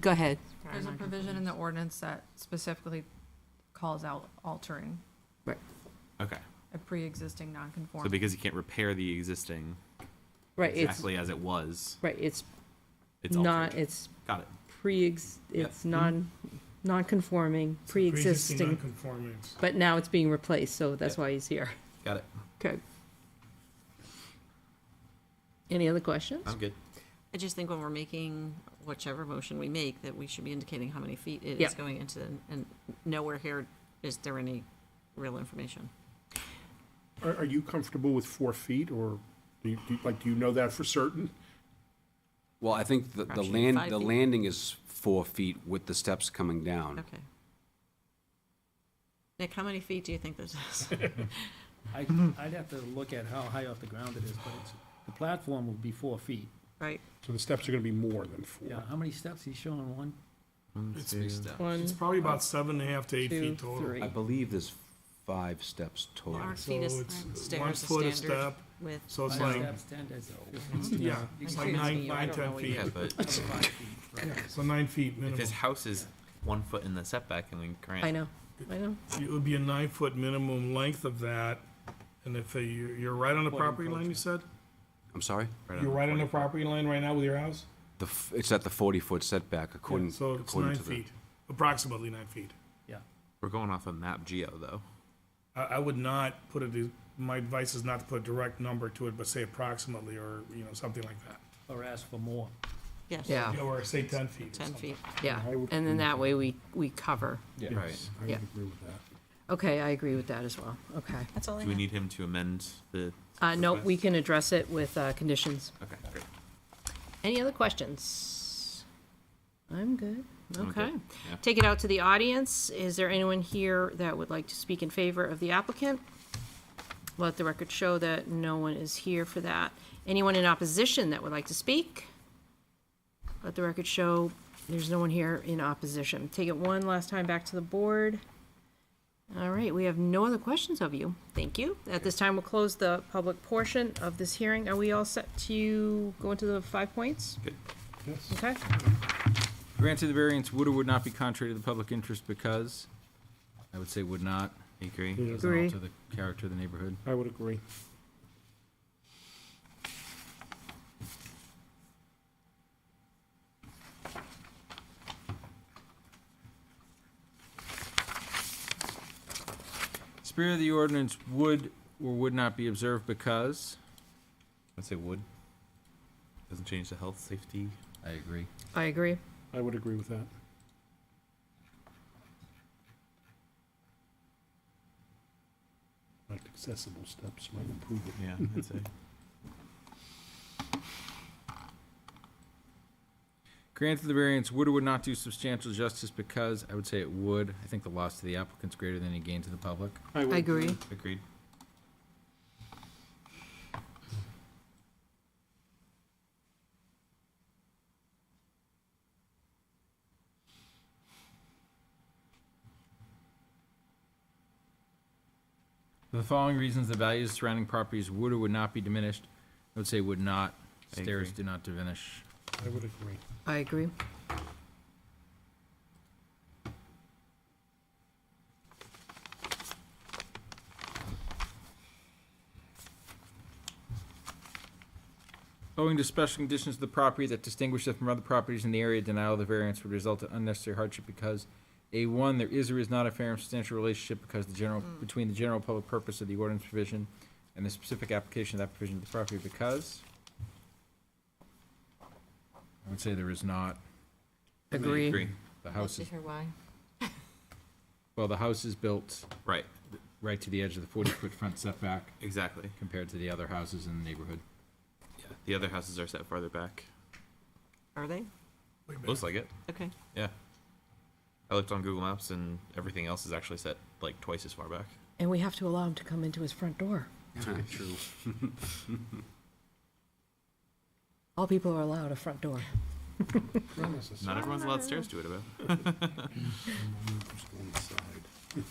Go ahead. There's a provision in the ordinance that specifically calls out altering Right. Okay. a pre-existing So non-conforming. because you can't repair the existing Right, it's, exactly as it was, right, it's it's not, altered. it's Got it. pre, it's Yeah. non, non-conforming, pre-existing, Nonconformance. but now it's being replaced, so that's Yeah. why he's here. Got it. Okay. Any other questions? I'm good. I just think when we're making whichever motion we make, that we should be indicating how many feet it is Yep. going into, and- and nowhere here is there any real information. Are, are you comfortable with four feet, or do you, do you- like, do you know that for certain? Well, I think the, the Perhaps even land, five the feet. landing is four feet with the steps coming down. Okay. Nick, how many feet do you think this is? I, I'd have to look at how high off the ground it is, but it's, the platform will be four feet. Right? So the steps are gonna be more than four. Yeah, how many steps he's showing? One, One, It's probably about seven and a half to eight two, feet total. three. I believe there's five steps total. Our So feet is, it's aren't one stairs foot a the standard step. with, So it's five like, steps, ten, that's- yeah, Excuse it's like nine, me, I nine, don't know ten what feet. Yeah, but Five feet, right. So nine feet if minimum. his house is one foot in the setback, and we grant. I know, I know. It would be a nine-foot minimum length of that, and if you- you're right on the Foot property line, you said? I'm sorry? Right You're on right on the 40. property line right now with your house? The, f- it's at the forty-foot setback according, So it's according nine to the. feet, approximately nine feet. Yeah. We're going off of map geo though. I, I would not put it, my advice is not to put a direct number to it, but say approximately, or, you know, something like that. Or ask for more. yes. Yeah, Yeah, Or say ten feet. or 10 something. feet. yeah. And then that way we, we cover. Right. I Yeah. would agree with that. Okay, I agree with that as well. Okay. That's all I Do we have. need him to amend the? Uh, no, request? we can address it with, uh, conditions. Okay, great. Any other questions? I'm good. I'm good, Okay. yeah. Take it out to the audience. Is there anyone here that would like to speak in favor of the applicant? Let the record show that no one is here for that. Anyone in opposition that would like to speak? Let the record show there's no one here in opposition. Take it one last time back to the board. All right, we have no other questions of you. Thank you. At this time, we'll close the public portion of this hearing. Are we all set to go into the five points? Good. Okay. Granted, the variance would or would not be contrary to the public interest because, I would say would not. I agree. Doesn't Agree. alter the character of the neighborhood. I would agree. Spirit of the ordinance would or would not be observed because, I'd say wood. Doesn't change the health, safety. I agree. I agree. I would agree with that. Like accessible steps might improve it. Yeah, I'd say. Granted, the variance would or would not do substantial justice because, I would say it would. I think the loss to the applicant's greater than any gain to the public. I would I agree. Agreed. For the following reasons, the values of surrounding properties would or would not be diminished. I would say would not. I Stairs agree. do not diminish. I would agree. I agree. Owing to special conditions of the property that distinguish it from other properties in the area, denial of the variance would result in unnecessary hardship because A one, there is or is not a fair and substantial relationship because the general, between the general public purpose of the ordinance provision and the specific application of that provision to the property because I would say there is not. Agree. Agree. The house is, Did you hear why? well, the house is built Right. right to the edge of the forty-foot front setback Exactly. compared to the other houses in the neighborhood. Yeah. The other houses are set farther back. Are they? Way back. Looks like it. Okay. Yeah. I looked on Google Maps and everything else is actually set like twice as far back. And we have to allow him to come into his front door. True. All people are allowed a front door. Not everyone's allowed stairs to it about. Just on the side.